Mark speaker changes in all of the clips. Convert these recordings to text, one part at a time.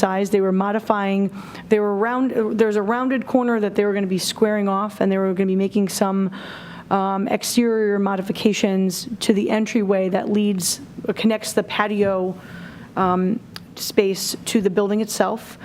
Speaker 1: size. They were modifying, they were round, there's a rounded corner that they were going to be squaring off, and they were going to be making some um, exterior modifications to the entryway that leads, connects the patio um, space to the building itself.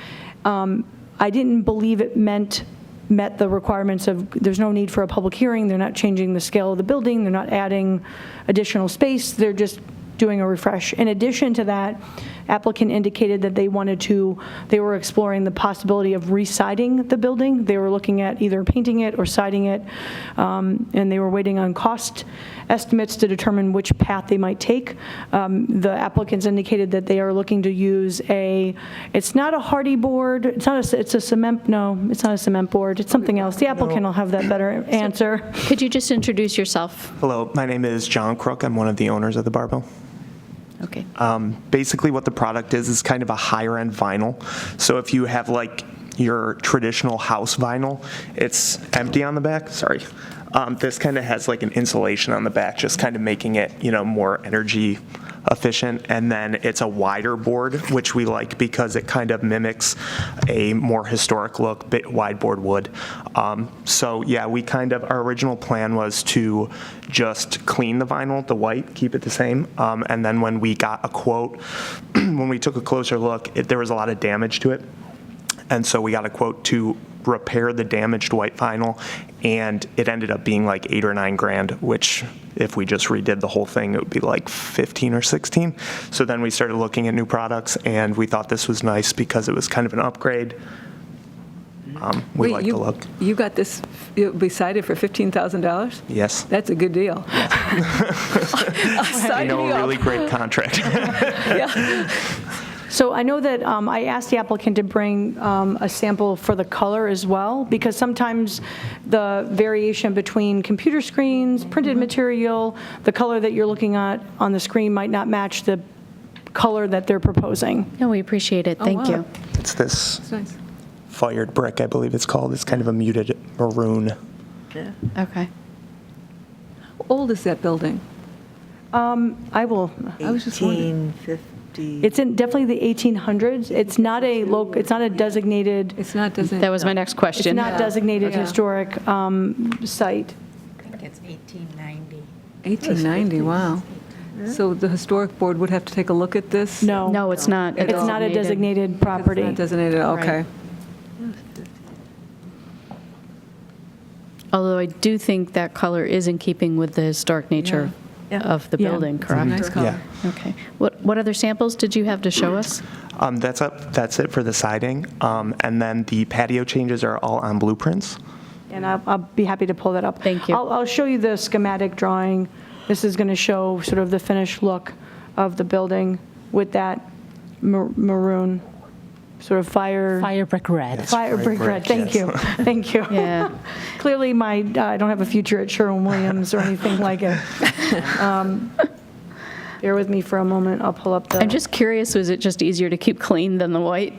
Speaker 1: Um, I didn't believe it meant, met the requirements of, there's no need for a public hearing, they're not changing the scale of the building, they're not adding additional space, they're just doing a refresh. In addition to that, applicant indicated that they wanted to, they were exploring the possibility of residing the building. They were looking at either painting it or siding it, um, and they were waiting on cost estimates to determine which path they might take. Um, The applicants indicated that they are looking to use a, it's not a hardy board, it's not a, it's a cement, no, it's not a cement board, it's something else. The applicant will have that better answer.
Speaker 2: Could you just introduce yourself?
Speaker 3: Hello, my name is John Crook. I'm one of the owners of the Barbell.
Speaker 2: Okay.
Speaker 3: Uh, Basically, what the product is is kind of a higher end vinyl. So if you have like your traditional house vinyl, it's empty on the back. Sorry. Um, this kind of has like an insulation on the back, just kind of making it, you know, more energy efficient. And then it's a wider board, which we like because it kind of mimics a more historic look, bit wide board wood. Um, so yeah, we kind of our original plan was to just clean the vinyl, the white, keep it the same. Um, and then when we got a quote, when we took a closer look, it, there was a lot of damage to it. And so we got a quote to repair the damaged white vinyl, and it ended up being like eight or nine grand, which if we just redid the whole thing, it would be like 15 or 16. So then we started looking at new products, and we thought this was nice because it was kind of an upgrade. Um, we
Speaker 4: Wait,
Speaker 3: like
Speaker 4: you-
Speaker 3: the look.
Speaker 4: You got this, you decided for $15,000?
Speaker 3: Yes.
Speaker 4: That's a good deal.
Speaker 3: You
Speaker 4: Sign
Speaker 3: know,
Speaker 4: me
Speaker 3: a
Speaker 4: up.
Speaker 3: really great contract.
Speaker 1: So I know that um, I asked the applicant to bring um, a sample for the color as well, because sometimes the variation between computer screens, printed material, the color that you're looking at on the screen might not match the color that they're proposing.
Speaker 2: No, we appreciate it. Thank
Speaker 4: wow.
Speaker 2: you.
Speaker 3: it's this
Speaker 4: That's nice.
Speaker 3: fired brick, I believe it's called. It's kind of a muted maroon.
Speaker 2: Okay.
Speaker 4: How old is that building?
Speaker 1: Um, I will,
Speaker 4: I was just wondering.
Speaker 5: 1850.
Speaker 1: it's in definitely the 1800s. It's not a loc, it's not a designated,
Speaker 4: It's not, doesn't.
Speaker 2: That was my next
Speaker 1: it's
Speaker 2: question.
Speaker 1: not designated historic um, site.
Speaker 6: I think it's 1890.
Speaker 4: 1890, wow. So the historic board would have to take a look at this?
Speaker 1: No.
Speaker 2: No, it's not.
Speaker 1: It's not a designated
Speaker 4: It's not
Speaker 1: property.
Speaker 4: Designated, okay.
Speaker 2: Right. Although I do think that color is in keeping with the historic nature
Speaker 5: Yeah.
Speaker 2: of the
Speaker 1: Yeah.
Speaker 2: building,
Speaker 4: Nice
Speaker 2: correct?
Speaker 4: color.
Speaker 2: Okay. What, what other samples did you have to show us?
Speaker 3: Um, that's up. That's it for the siding, um, and then the patio changes are all on blueprints.
Speaker 1: And I'll, I'll be happy to pull that up.
Speaker 2: Thank you.
Speaker 1: I'll, I'll show you the schematic drawing. This is going to show sort of the finished look of the building with that mar- maroon, sort of fire.
Speaker 7: Fire brick red.
Speaker 1: Fire brick red, thank you, thank you.
Speaker 2: Yeah.
Speaker 1: Clearly, my, uh, I don't have a future at Sherwin-Williams or anything like it. Um, Bear with me for a moment, I'll pull up the.
Speaker 2: I'm just curious, was it just easier to keep clean than the white?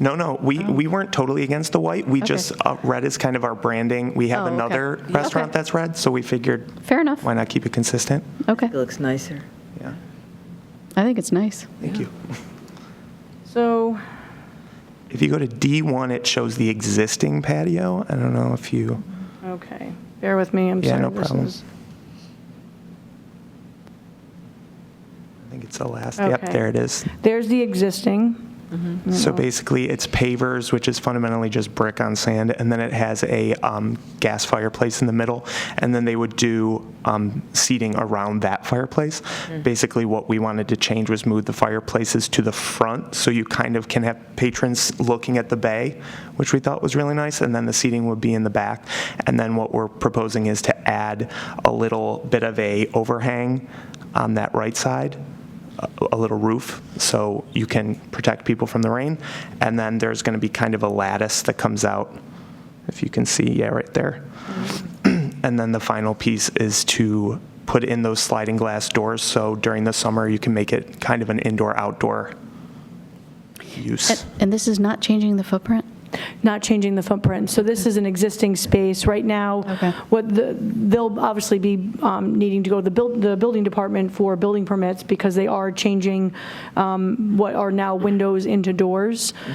Speaker 3: No, no, we,
Speaker 2: Oh.
Speaker 3: we weren't totally against the white. We just uh, red is kind of our branding. We have
Speaker 2: Oh, okay.
Speaker 3: another
Speaker 2: Yeah.
Speaker 3: restaurant
Speaker 2: Okay.
Speaker 3: that's red, so we figured
Speaker 2: Fair enough.
Speaker 3: why not keep it consistent?
Speaker 2: Okay.
Speaker 5: It looks nicer.
Speaker 3: Yeah,
Speaker 2: I think it's nice.
Speaker 3: thank you.
Speaker 1: So,
Speaker 3: If you go to D1, it shows the existing patio. I don't know if you.
Speaker 1: okay, bear with me, I'm
Speaker 3: Yeah,
Speaker 1: sorry.
Speaker 3: no
Speaker 1: this
Speaker 3: problem.
Speaker 1: is-
Speaker 3: I think it's the last. Yep,
Speaker 1: Okay.
Speaker 3: there it is.
Speaker 1: There's the existing.
Speaker 3: So basically, it's pavers, which is fundamentally just brick on sand, and then it has a um, gas fireplace in the middle, and then they would do um, seating around that fireplace. Basically, what we wanted to change was move the fireplaces to the front, so you kind of can have patrons looking at the bay, which we thought was really nice, and then the seating would be in the back. And then what we're proposing is to add a little bit of a overhang on that right side, a- a little roof so you can protect people from the rain. And then there's going to be kind of a lattice that comes out, if you can see, yeah, right there. And then the final piece is to put in those sliding glass doors, so during the summer, you can make it kind of an indoor-outdoor use.
Speaker 2: And this is not changing the footprint?
Speaker 1: not changing the footprint. So this is an existing space. Right now,
Speaker 2: Okay.
Speaker 1: what the, they'll obviously be um, needing to go to the buil- the building department for building permits because they are changing um, what are now windows into doors.